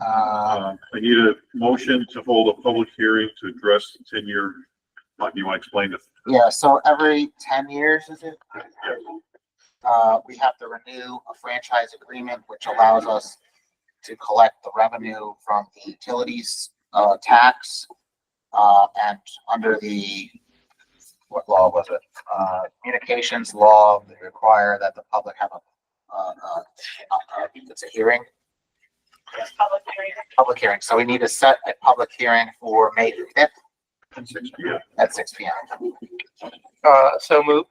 Uh, Uh, I need a motion to hold a public hearing to address the ten-year, Mike, you want to explain this? yeah, so every ten years, is it? Yeah. Uh, we have to renew a franchise agreement which allows us to collect the revenue from the utilities, uh, tax. Uh, and under the, what law was it? Uh, communications law, they require that the public have a, uh, uh, I think it's a hearing. public hearing. public hearing, so we need to set a public hearing for May fifth Six P M. at six P M. Uh, so moved.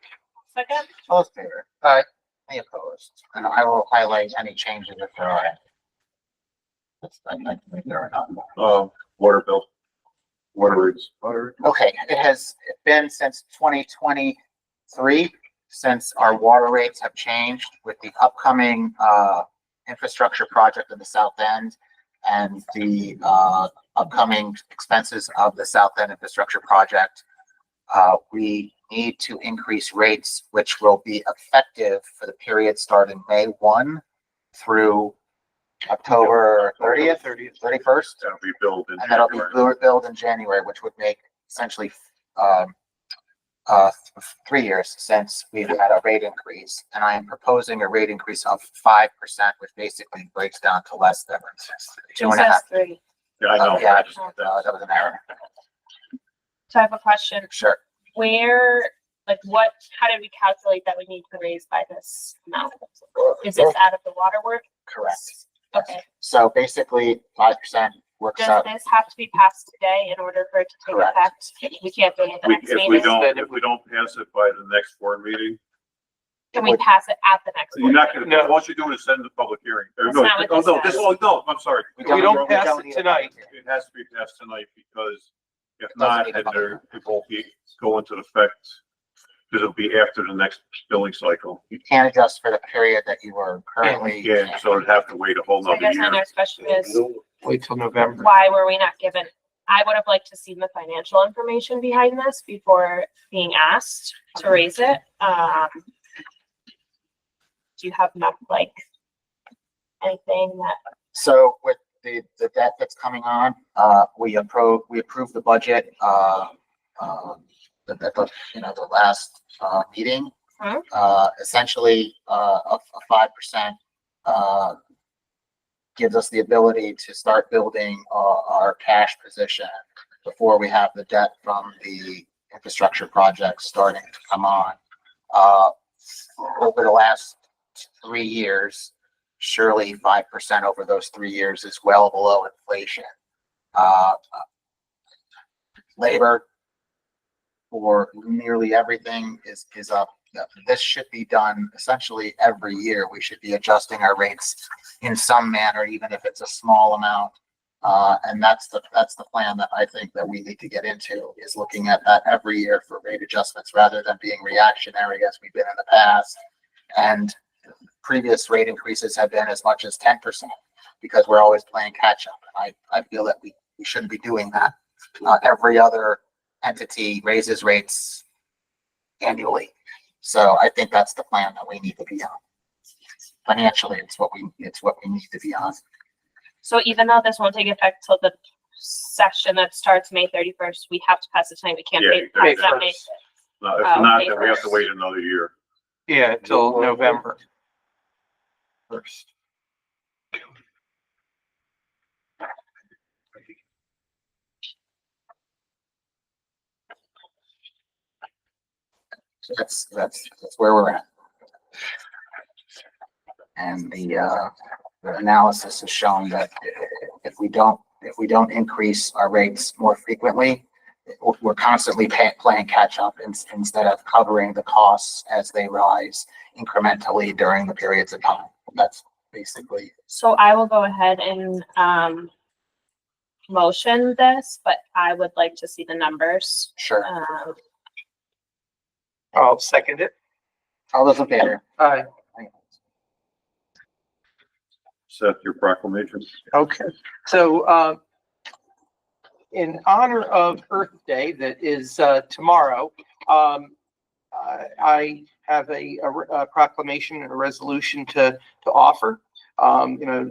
Second, All in favor? Aye. Any opposed? And I will highlight any changes if there are. any. That's- I I think there are none. Uh, water bill. Water rates. Okay, it has been since twenty twenty-three, since our water rates have changed with the upcoming, uh, infrastructure project in the South End and the, uh, upcoming expenses of the South End Infrastructure Project. Uh, we need to increase rates, which will be effective for the period starting May one through October thirtieth, Thirtieth. thirty-first. That'll be billed in And that'll be January. billed, billed in January, which would make essentially, um, uh, th- three years since we've had a rate increase. And I am proposing a rate increase of five percent, which basically breaks down to less than two two and a says half. three. Yeah, I know. Oh, yeah. I just- Uh, that was an error. So I have a question. Sure. Where, like what, how did we calculate that we need to raise by this amount? Is this out of the water work? Correct. Okay, So basically, five percent works does out. this have to be passed today in order for it to take Correct. effect? We can't do it at the We, next if we meeting. don't, if we don't pass it by the next board meeting, Can we pass it at the next? you're meeting? not gonna, No. what you're doing is send the public hearing. Or That's no, not what oh, this no, this, says. oh, no, I'm sorry. We don't- we don't need a pass it public hearing. tonight. It has to be passed tonight because if Doesn't not, need a then public there, it won't be, go into effect. Cause it'll be after the next billing cycle. You can't adjust for the period that you were currently. Yeah, so it'd have to wait a whole So I nother guess my year. next question is, Wait till November. why were we not given? I would have liked to seen the financial information behind this before being asked to raise it. Um. Do you have enough, like, anything that, So with the, the debt that's coming on, uh, we approve, we approved the budget, uh, um, at the, the, you know, the last, uh, meeting. Mhm. Uh, essentially, uh, a, a five percent, uh, gives us the ability to start building, uh, our cash position before we have the debt from the infrastructure project starting to come on. Uh, over the last three years, surely five percent over those three years is well below inflation. Uh, uh, labor for nearly everything is, is up. This should be done essentially every year. We should be adjusting our rates in some manner, even if it's a small amount. Uh, and that's the, that's the plan that I think that we need to get into, is looking at that every year for rate adjustments rather than being reactionary as we've been in the past. And previous rate increases have been as much as ten percent because we're always playing catch up. And I, I feel that we, we shouldn't be doing that. Uh, every other entity raises rates annually. So I think that's the plan that we need to be on. Financially, it's what we, it's what we need to be on. so even though this won't take effect till the session that starts May thirty-first, we have to pass it tonight. We can't Yeah, wait. May pass that May- No, if Oh, not, okay, then we have to first. wait another year. Yeah, till November. First. That's, that's, that's where we're at. And the, uh, the analysis has shown that if we don't, if we don't increase our rates more frequently, we're- we're constantly pay, playing catch up in- instead of covering the costs as they rise incrementally during the periods of time. That's basically, So I will go ahead and, um, motion this, but I would like to see the numbers. sure. Um, I'll second it. All those in favor? Aye. Seth, your proclamation. Okay, so, uh, in honor of Earth Day that is, uh, tomorrow, um, I I have a, a re- a proclamation and a resolution to, to offer. Um, you know,